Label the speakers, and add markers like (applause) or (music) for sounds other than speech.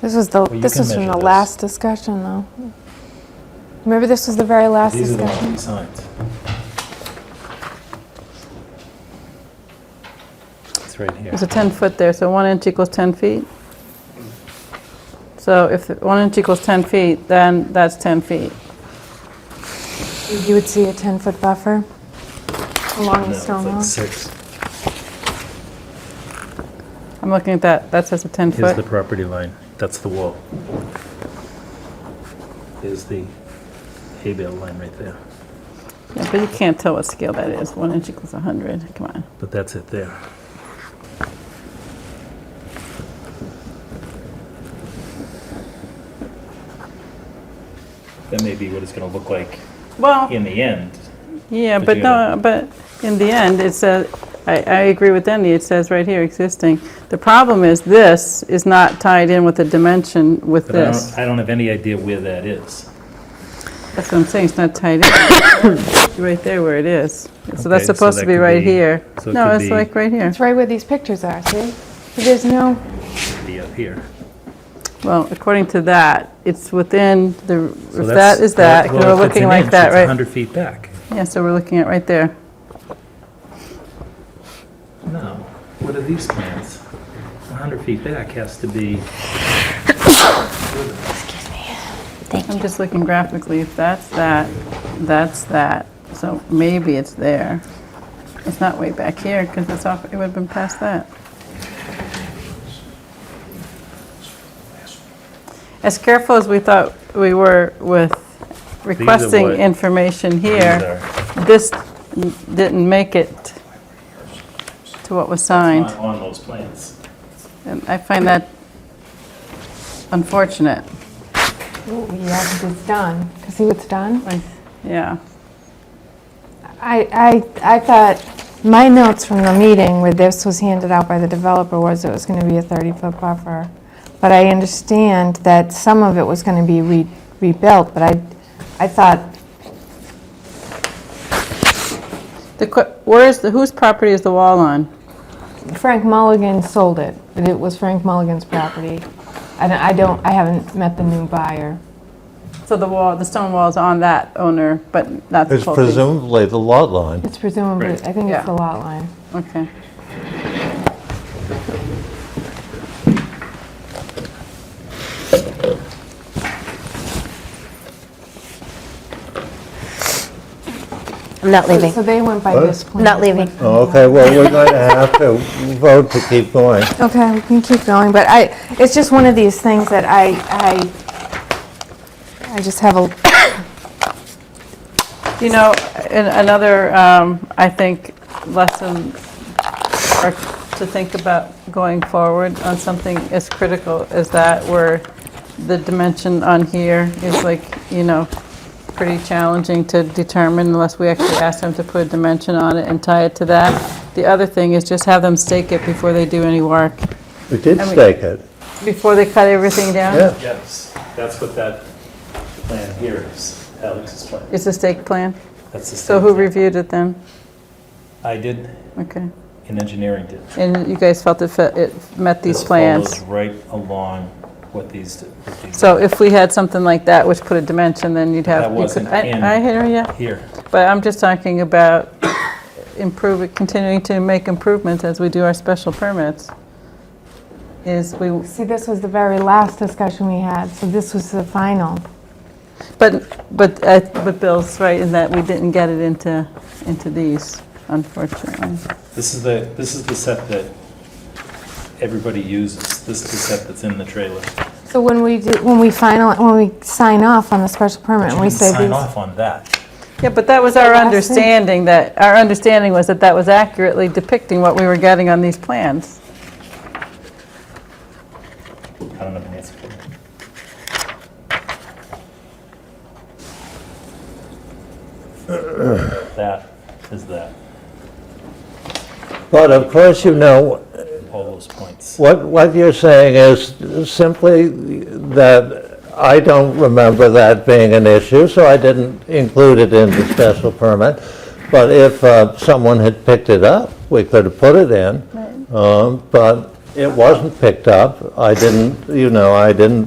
Speaker 1: This was the,
Speaker 2: Well, you
Speaker 1: this
Speaker 2: can
Speaker 1: was from
Speaker 2: measure
Speaker 1: the
Speaker 2: this.
Speaker 1: last discussion, though. Remember, this was the very last
Speaker 2: These are the ones
Speaker 1: discussion?
Speaker 2: we signed. It's right here.
Speaker 3: There's a 10-foot there, so one inch equals 10 feet. So if the- one inch equals 10 feet, then that's 10 feet.
Speaker 1: You would see a 10-foot buffer along
Speaker 2: No,
Speaker 1: the
Speaker 2: it's
Speaker 1: stone
Speaker 2: like
Speaker 1: wall.
Speaker 2: six.
Speaker 3: I'm looking at that, that says a
Speaker 2: Here's the
Speaker 3: 10-foot.
Speaker 2: property line, that's the wall. Here's the hay bale line right there,
Speaker 3: Yeah, But you can't tell what scale that is, one inch equals 100, come on.
Speaker 2: but that's it there. That may be what it's gonna look like
Speaker 3: Well,
Speaker 2: in the end.
Speaker 3: yeah,
Speaker 2: but
Speaker 3: but
Speaker 2: you
Speaker 3: no, but in the end, it says, I, I agree with Andy, it says right here, existing. The problem is this is not tied in with the dimension with
Speaker 2: But I
Speaker 3: this.
Speaker 2: don't, I don't have any idea where that is.
Speaker 3: That's what I'm saying, it's not tied in. (coughs) It's Right there where it is. So
Speaker 2: Okay,
Speaker 3: that's
Speaker 2: so
Speaker 3: supposed to
Speaker 2: that
Speaker 3: be
Speaker 2: could
Speaker 3: right
Speaker 2: be-
Speaker 3: here.
Speaker 2: so it
Speaker 3: No,
Speaker 2: could
Speaker 3: it's
Speaker 2: be-
Speaker 3: like right here.
Speaker 1: It's right where these pictures are, see? There's no,
Speaker 2: Maybe up here.
Speaker 3: Well, according to that, it's within the,
Speaker 2: So that's-
Speaker 3: if that is that,
Speaker 2: well,
Speaker 3: we're
Speaker 2: if it's
Speaker 3: looking
Speaker 2: an
Speaker 3: like
Speaker 2: inch,
Speaker 3: that,
Speaker 2: It's
Speaker 3: right?
Speaker 2: 100 feet back.
Speaker 3: Yeah, so we're looking at right there.
Speaker 2: No, what are these plans? 100 feet back has to be,
Speaker 3: I'm just looking graphically, if that's that, that's that. So maybe it's there. It's not way back here, because it's off, it would have been past that. As careful as we thought we were with requesting
Speaker 2: what-
Speaker 3: information
Speaker 2: these
Speaker 3: here,
Speaker 2: are,
Speaker 3: this n- didn't make it to what was
Speaker 2: on
Speaker 3: signed.
Speaker 2: on those plans.
Speaker 3: And I find that unfortunate.
Speaker 1: ooh, yes, it's done. 'Cause See what's done?
Speaker 3: Like, Yeah.
Speaker 1: I, I, I thought, my notes from the meeting where this was handed out by the developer was it was going to be a 30-foot buffer. But I understand that some of it was going to be re- rebuilt, but I, I thought,
Speaker 3: The, que- where is, the whose property is the wall on?
Speaker 1: Frank Mulligan sold it, but it was Frank Mulligan's property. I don't- I don't, I haven't met the new buyer.
Speaker 3: So the wall, the stone wall is on that owner, but not the
Speaker 4: It's
Speaker 3: whole thing?
Speaker 4: presumably the lot line.
Speaker 1: It's presumably,
Speaker 2: Right.
Speaker 1: I think
Speaker 3: Yeah.
Speaker 1: it's the lot line.
Speaker 3: Okay.
Speaker 5: I'm not leaving.
Speaker 1: So they went by
Speaker 4: What?
Speaker 1: this plan. Oh.
Speaker 5: Not leaving.
Speaker 4: Okay, well, we're going to have to vote to keep going.
Speaker 1: Okay, we can keep going, but I, it's just one of these things that I, I, I just have a,
Speaker 3: You know, an- another, um, I think, lesson or to think about going forward on something as critical as that, where the dimension on here is like, you know, pretty challenging to determine unless we actually ask them to put a dimension on it and tie it to that. The other thing is just have them stake it before they do any work,
Speaker 4: We did
Speaker 3: And we-
Speaker 4: stake it,
Speaker 3: before they cut everything down.
Speaker 4: yeah.
Speaker 2: Yes, that's what that plan here is, Alex's plan.
Speaker 3: It's a stake plan.
Speaker 2: That's the
Speaker 3: So
Speaker 2: same
Speaker 3: who
Speaker 2: thing.
Speaker 3: reviewed it then?
Speaker 2: I did,
Speaker 3: Okay.
Speaker 2: and engineering did.
Speaker 3: And you guys felt it fit- it met these
Speaker 2: This
Speaker 3: plans?
Speaker 2: follows right along what these, what these-
Speaker 3: So if we had something like that, which put a dimension, then you'd have...
Speaker 2: That
Speaker 3: you could-
Speaker 2: wasn't
Speaker 3: I-
Speaker 2: in.
Speaker 3: I hear you,
Speaker 2: here.
Speaker 3: but I'm just talking about improving, continuing to make improvements as we do our special permits, is we,
Speaker 1: see, this was the very last discussion we had, so this was the final.
Speaker 3: but, but, uh, but Bill's right in that we didn't get it into, into these, unfortunately.
Speaker 2: This is the, this is the set that everybody uses. This is the set that's in the trailer.
Speaker 1: So when we do, when we final, when we sign off on the special permit,
Speaker 2: You
Speaker 1: and we
Speaker 2: didn't
Speaker 1: say
Speaker 2: Sign
Speaker 1: these,
Speaker 2: off on that.
Speaker 3: Yeah, but that was our
Speaker 1: Last thing.
Speaker 3: understanding, that, our understanding was that that was accurately depicting what we were getting on these plans.
Speaker 2: I don't know the answer to that. That is that,
Speaker 4: But of course, you know,
Speaker 2: all those points.
Speaker 4: what, what you're saying is simply that I don't remember that being an issue, so I didn't include it in the special permit. But if uh, someone had picked it up, we could have put it in. Um, But It wasn't picked up. I didn't, you know, I didn't